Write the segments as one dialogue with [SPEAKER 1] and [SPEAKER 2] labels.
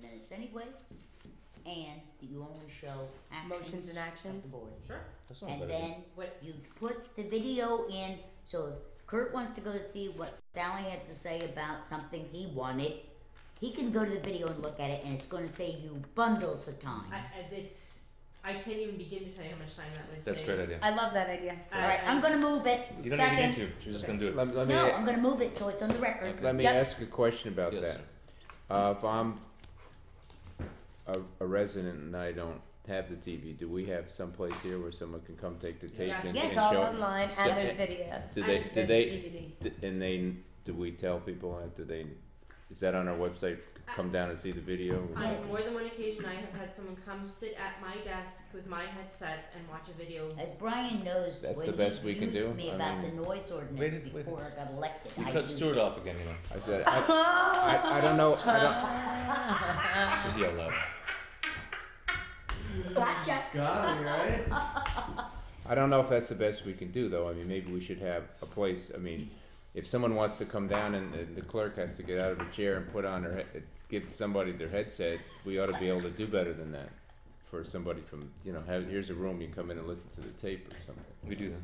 [SPEAKER 1] relationships anyway, and you only show actions. Hmm.
[SPEAKER 2] Motions and
[SPEAKER 1] of the
[SPEAKER 2] actions.
[SPEAKER 1] board.
[SPEAKER 3] Sure.
[SPEAKER 4] That's not
[SPEAKER 1] And
[SPEAKER 4] better.
[SPEAKER 1] then
[SPEAKER 3] What?
[SPEAKER 1] you put the video in, so if Kurt wants to go see what Sally had to say about something he wanted, he can go to the video and look at it, and it's gonna save you bundles of
[SPEAKER 3] I, I,
[SPEAKER 1] time.
[SPEAKER 3] it's. I can't even begin to tell you how much time that was.
[SPEAKER 5] That's a great idea.
[SPEAKER 2] I love that idea.
[SPEAKER 3] I-
[SPEAKER 1] Alright, I'm gonna move it,
[SPEAKER 5] You don't even need to.
[SPEAKER 2] Second.
[SPEAKER 5] She's just gonna do it.
[SPEAKER 4] Let, let me,
[SPEAKER 1] no, I'm gonna move it, so it's on the record.
[SPEAKER 4] let me
[SPEAKER 2] Yep.
[SPEAKER 4] ask a question about
[SPEAKER 5] Yes,
[SPEAKER 4] that.
[SPEAKER 5] sir.
[SPEAKER 4] Uh, if I'm a, a resident and I don't have the TV, do we have someplace here where someone can come take the tape
[SPEAKER 3] Yes.
[SPEAKER 4] and,
[SPEAKER 2] Yeah,
[SPEAKER 4] and
[SPEAKER 2] it's all
[SPEAKER 4] show? it?
[SPEAKER 2] online
[SPEAKER 4] So-
[SPEAKER 2] and there's video.
[SPEAKER 4] Do they, do
[SPEAKER 2] There's
[SPEAKER 4] they,
[SPEAKER 2] DVD.
[SPEAKER 4] d- and they, do we tell people that? Do they, is that on our website? Come down and see the video?
[SPEAKER 1] Yes.
[SPEAKER 3] On more than one occasion, I have had someone come sit at my desk with my headset and watch a video.
[SPEAKER 1] As Brian knows,
[SPEAKER 4] That's the
[SPEAKER 1] when
[SPEAKER 4] best
[SPEAKER 1] he
[SPEAKER 4] we can
[SPEAKER 1] used
[SPEAKER 4] do.
[SPEAKER 1] me
[SPEAKER 4] I
[SPEAKER 1] about the
[SPEAKER 4] mean-
[SPEAKER 1] noise
[SPEAKER 5] Where
[SPEAKER 1] ordinance
[SPEAKER 5] did- where
[SPEAKER 1] before
[SPEAKER 5] did-
[SPEAKER 1] I got elected,
[SPEAKER 5] We
[SPEAKER 1] I
[SPEAKER 5] cut
[SPEAKER 1] used
[SPEAKER 5] Stuart
[SPEAKER 1] it.
[SPEAKER 5] off again, you know.
[SPEAKER 4] I said, I, I, I don't know, I don't,
[SPEAKER 5] Just yell loud.
[SPEAKER 1] Gotcha.
[SPEAKER 6] God, right?
[SPEAKER 4] I don't know if that's the best we can do, though. I mean, maybe we should have a place, I mean, if someone wants to come down and, and the clerk has to get out of a chair and put on her, head- give somebody their headset, we ought to be able to do better than that. For somebody from, you know, have, here's a room, you come in and listen to the tape or something.
[SPEAKER 5] We do that.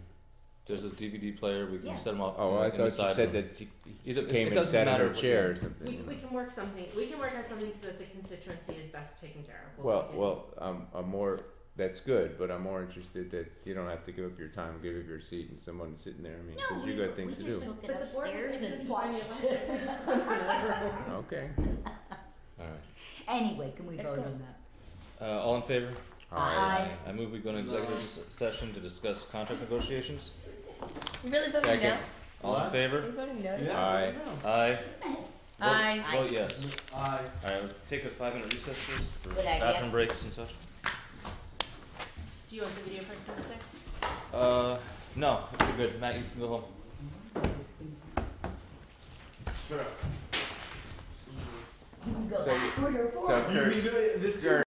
[SPEAKER 5] There's a DVD player. We can
[SPEAKER 1] Yeah.
[SPEAKER 5] set them off.
[SPEAKER 4] Oh, I
[SPEAKER 5] in the
[SPEAKER 4] thought you
[SPEAKER 5] side
[SPEAKER 4] said
[SPEAKER 5] room.
[SPEAKER 4] that she
[SPEAKER 5] Either-
[SPEAKER 4] she came
[SPEAKER 5] it
[SPEAKER 4] and
[SPEAKER 5] doesn't
[SPEAKER 4] sat in
[SPEAKER 5] matter
[SPEAKER 4] her
[SPEAKER 5] what-
[SPEAKER 4] chair or
[SPEAKER 3] We, we
[SPEAKER 4] something.
[SPEAKER 3] can work something. We can work out something so that the constituency is best taken care of.
[SPEAKER 4] Well,
[SPEAKER 3] we can-
[SPEAKER 4] well, I'm, I'm more, that's good, but I'm more interested that you don't have to give up your time, give up your seat and someone sitting there, I mean,
[SPEAKER 1] No,
[SPEAKER 4] cause
[SPEAKER 1] we,
[SPEAKER 4] you got things to
[SPEAKER 1] we
[SPEAKER 4] do.
[SPEAKER 1] just took it
[SPEAKER 3] But the board
[SPEAKER 1] upstairs
[SPEAKER 3] is
[SPEAKER 1] and watched.
[SPEAKER 3] We just go in another room.
[SPEAKER 4] Okay.
[SPEAKER 5] All right.
[SPEAKER 1] Anyway, can we
[SPEAKER 2] Let's
[SPEAKER 1] vote
[SPEAKER 2] go.
[SPEAKER 1] on that?
[SPEAKER 5] Uh, all in favor?
[SPEAKER 4] Alright.
[SPEAKER 2] Aye.
[SPEAKER 5] I move we go into executive s- session to discuss contract negotiations.
[SPEAKER 2] You really voting
[SPEAKER 4] Second.
[SPEAKER 2] no?
[SPEAKER 5] All in
[SPEAKER 6] What?
[SPEAKER 5] favor?
[SPEAKER 2] You voting no?
[SPEAKER 6] Yeah.
[SPEAKER 4] Aye.
[SPEAKER 5] Aye.
[SPEAKER 2] Aye.
[SPEAKER 1] Aye.
[SPEAKER 5] Vote yes.
[SPEAKER 6] I.
[SPEAKER 5] All right, we'll take a five minute recess first for
[SPEAKER 1] Good idea.
[SPEAKER 5] bathroom breaks and such.
[SPEAKER 3] Do you want the video first, Mr.?
[SPEAKER 5] Uh, no, we're good. Matt, you can go home.
[SPEAKER 6] Sure.
[SPEAKER 1] You can go
[SPEAKER 4] So you-
[SPEAKER 1] backward or forward.
[SPEAKER 4] So
[SPEAKER 6] You can do it this too.